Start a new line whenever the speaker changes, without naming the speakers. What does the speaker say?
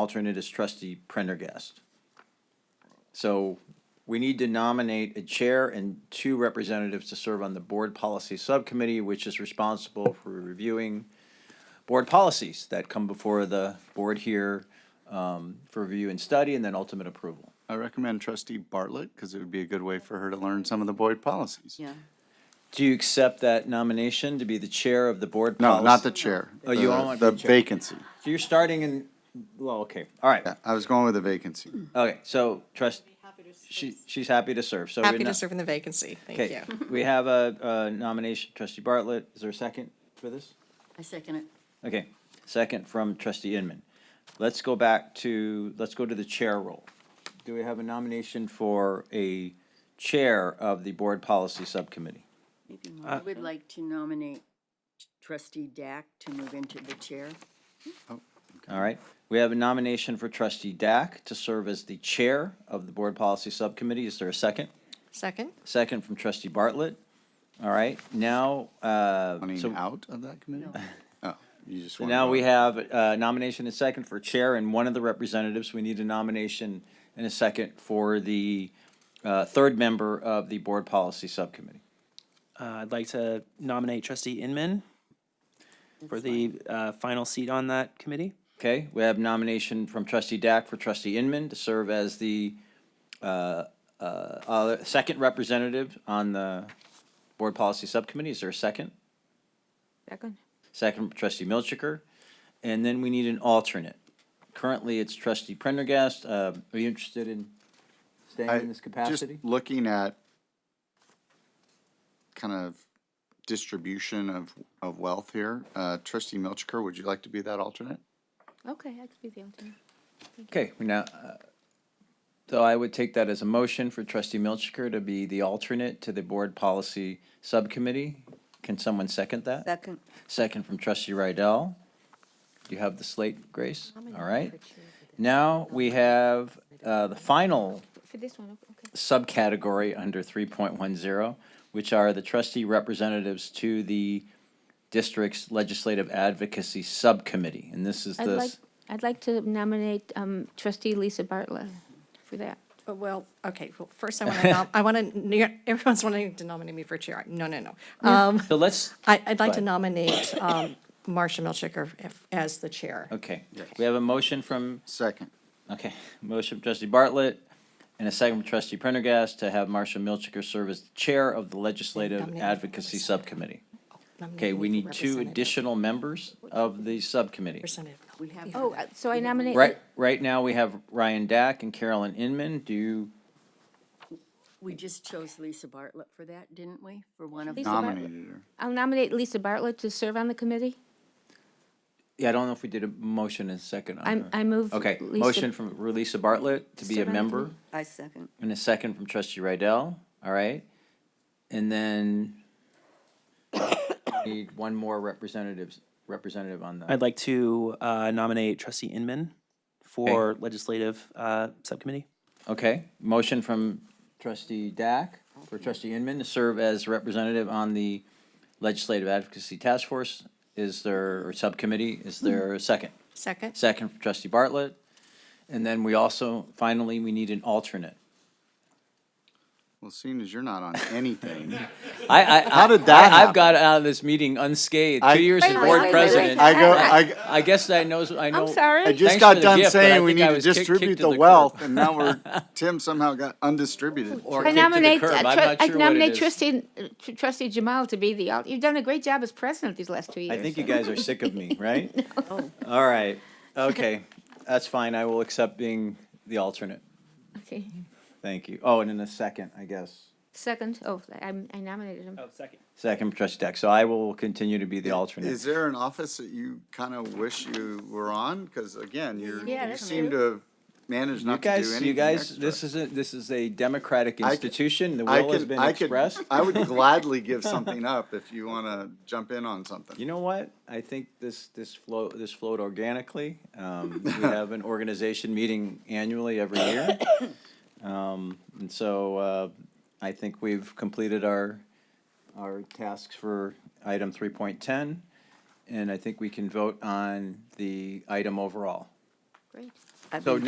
alternate is trustee Prendergast. So we need to nominate a chair and two representatives to serve on the board policy subcommittee, which is responsible for reviewing board policies that come before the board here um, for review and study and then ultimate approval.
I recommend trustee Bartlett because it would be a good way for her to learn some of the Boyd policies.
Yeah,
Do you accept that nomination to be the chair of the board?
No, not the
policy-
chair.
Oh, you
the-
don't want to be
The
chair.
vacancy.
So you're starting in, well, okay, all right,
Yeah, I was going with the vacancy.
okay, so trust, she, she's happy to serve, so. we're
Happy to
not-
serve in the vacancy. Thank
Okay,
you.
we have a a nomination, trustee Bartlett, is there a second for this?
I second it.
Okay, second from trustee Inman. Let's go back to, let's go to the chair role. Do we have a nomination for a chair of the board policy subcommittee?
Maybe more. I would like to nominate trustee Dack to move into the chair.
All right, we have a nomination for trustee Dack to serve as the chair of the board policy subcommittee. Is there a second?
Second?
Second from trustee Bartlett. All right, now, uh, so
Running out of that committee? Oh, you just
So
want.
now we have a nomination and second for chair and one of the representatives. We need a nomination and a second for the uh, third member of the board policy subcommittee.
Uh, I'd like to nominate trustee Inman for the uh, final seat on that committee.
Okay, we have nomination from trustee Dack for trustee Inman to serve as the uh, uh, uh, second representative on the board policy subcommittee. Is there a second?
Second.
Second from trustee Milchiker. And then we need an alternate. Currently, it's trustee Prendergast. Uh, Are you interested in staying
I-
in this capacity?
Just looking at kind of distribution of, of wealth here. Uh, Trustee Milchiker, would you like to be that alternate?
Okay, I could be the alternate.
Okay, we now, uh, so I would take that as a motion for trustee Milchiker to be the alternate to the board policy subcommittee. Can someone second that?
Second.
Second from trustee Rydell. You have the slate, Grace? All right. Now we have uh, the final
For this one, okay.
subcategory under 3.10, which are the trustee representatives to the district's legislative advocacy subcommittee. And this is
I'd
the,
like,
s-
I'd like to nominate um, trustee Lisa Bartlett for that.
Oh, Well, okay, well, first I want to, I want to, everyone's wanting to nominate me for chair. No, no, no. Um,
so let's,
I, I'd like to
Right.
nominate um, Marcia Milchiker if- as the chair.
okay. We have a motion from
Second.
Okay, motion from trustee Bartlett and a second from trustee Prendergast to have Marcia Milchiker serve as the chair of the Legislative
Nominate her for
Advocacy
representative.
Subcommittee.
Nominate
Okay,
me
we
for
need two
representative.
additional members of the subcommittee.
Representative.
We have-
Oh, uh, so I nominate.
Right, right now, we have Ryan Dack and Carolyn Inman. Do you,
We just chose Lisa Bartlett for that, didn't we? For one of
Lisa
them.
Bartlett.
Nominated her.
I'll nominate Lisa Bartlett to serve on the committee.
yeah, I don't know if we did a motion and second on
I'm,
her.
I move.
Uh-huh. Okay,
Lisa-
motion from Lisa Bartlett to be a
Serve on the
member
committee.
I second.
and a second from trustee Rydell, all right? And then we need one more representatives, representative on that.
I'd like to uh, nominate trustee Inman for legislative uh, subcommittee.
Okay, motion from trustee Dack for trustee Inman to serve as representative on the Legislative Advocacy Task Force. Is there, or subcommittee, is there a second?
Second?
Second from trustee Bartlett. And then we also, finally, we need an alternate.
Well, seeing as you're not on anything.
I, I.
How did that
I- I've
happen?
got out of this meeting unscathed,
I-
two years as
Wait,
board
wait, wait, wait.
president.
I go, I,
I guess I knows, I know.
I'm sorry.
I
Thanks
just
for
got
the
done
gift, but I
saying we
think I
need to
was kick-
distribute
kicked to
the
the curb.
wealth, and now we're, Tim somehow got undistributed.
Or
I
kicked to the
nominate,
curb.
uh,
I'm
tru-
not
I
sure what it
nominate
is.
trustee, uh, tr- trustee Jamal to be the alt, you've done a great job as president these last two years.
I think you guys are sick of me, right?
Oh,
All right, okay, that's fine, I will accept being the alternate,
Okay,
thank you. Oh, and in a second, I guess,
second, oh, I I nominated him.
Oh.
second.
second trustee Deck, so I will continue to be the alternate.
Is there an office that you kind of wish you were on? Because again, you're,
Yeah,
you
that's
seem to
true.
have managed
You
not to do anything
guys, you guys,
extra.
this isn't, this is a democratic
I c-
institution, the
I
will has
could-
been
I could-
expressed.
I would gladly give something up if you want to jump in on something.
You know what? I think this, this flow, this flowed organically. Um, we have an organization meeting annually every year. Um, and so, uh, I think we've completed our, our tasks for item three point ten. And I think we can vote on the item overall.
Great.
I've
So
been